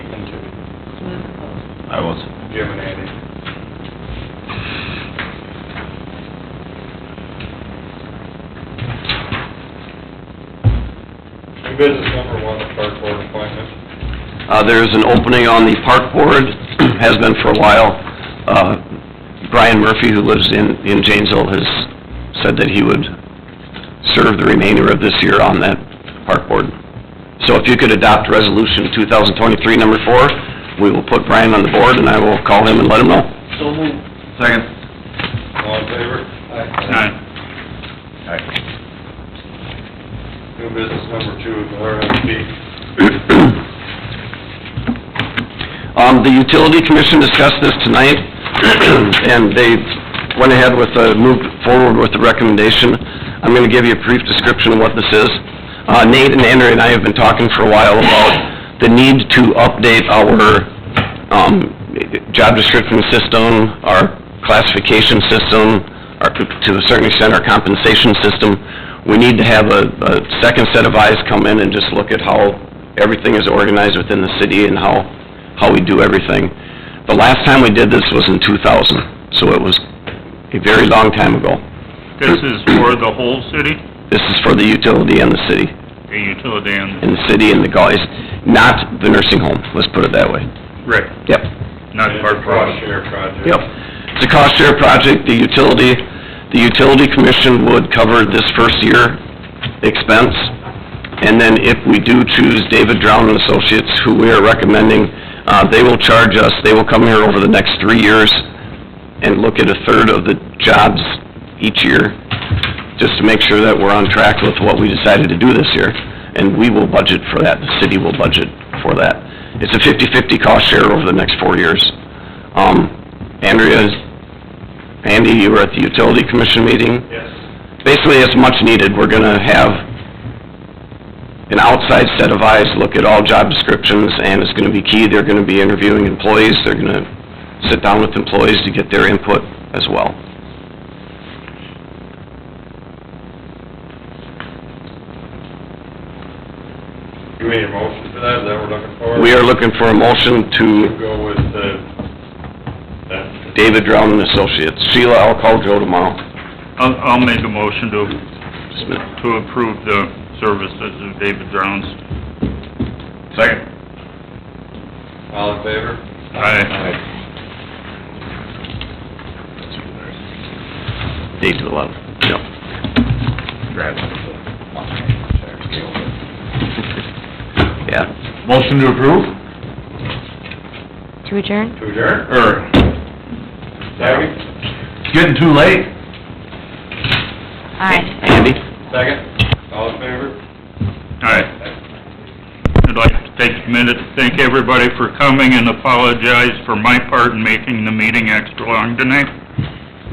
I was, Jim and Andy. New business number one, the park board appointment. Uh, there is an opening on the park board, has been for a while. Uh, Brian Murphy, who lives in, in Janesville, has said that he would serve the remainder of this year on that park board. So if you could adopt resolution two thousand twenty-three, number four, we will put Brian on the board, and I will call him and let him know. second. All in favor? Aye. New business number two, the RFP. Um, the utility commission discussed this tonight, and they went ahead with, uh, moved forward with the recommendation. I'm gonna give you a brief description of what this is. Uh, Nate and Andrew and I have been talking for a while about the need to update our, um, job description system, our classification system, our, to a certain extent, our compensation system. We need to have a, a second set of eyes come in and just look at how everything is organized within the city and how how we do everything. The last time we did this was in two thousand, so it was a very long time ago. This is for the whole city, This is for the utility and the city, the utility and... and the city and the guys, not the nursing home, let's put it that way. Right. Yep, Not part Cross project. share project. yep. It's a cost share project, the utility, the utility commission would cover this first year expense. And then if we do choose David Drown and Associates, who we are recommending, uh, they will charge us, they will come here over the next three years and look at a third of the jobs each year, just to make sure that we're on track with what we decided to do this year. And we will budget for that, the city will budget for that. It's a fifty-fifty cost share over the next four years. Um, Andrea, Andy, you were at the utility commission meeting Yes. basically it's much needed. We're gonna have an outside set of eyes look at all job descriptions, and it's gonna be key. They're gonna be interviewing employees, they're gonna sit down with employees to get their input as well. Do we need a motion for that? Is that what we're looking for? We are looking for a To motion to go with the, that, David Drown and Associates. Sheila, I'll call Joe tomorrow. I'll, I'll make a motion to, Just a minute. to approve the services of David Drowns. Second. all in favor? Aye. Eight to eleven. Yep. Yeah. Motion to approve? To adjourn? To adjourn? Er, Second? it's getting too late. Aye. Andy? Second? All in favor? Aye. I'd like to take a minute to thank everybody for coming and apologize for my part in making the meeting extra long tonight.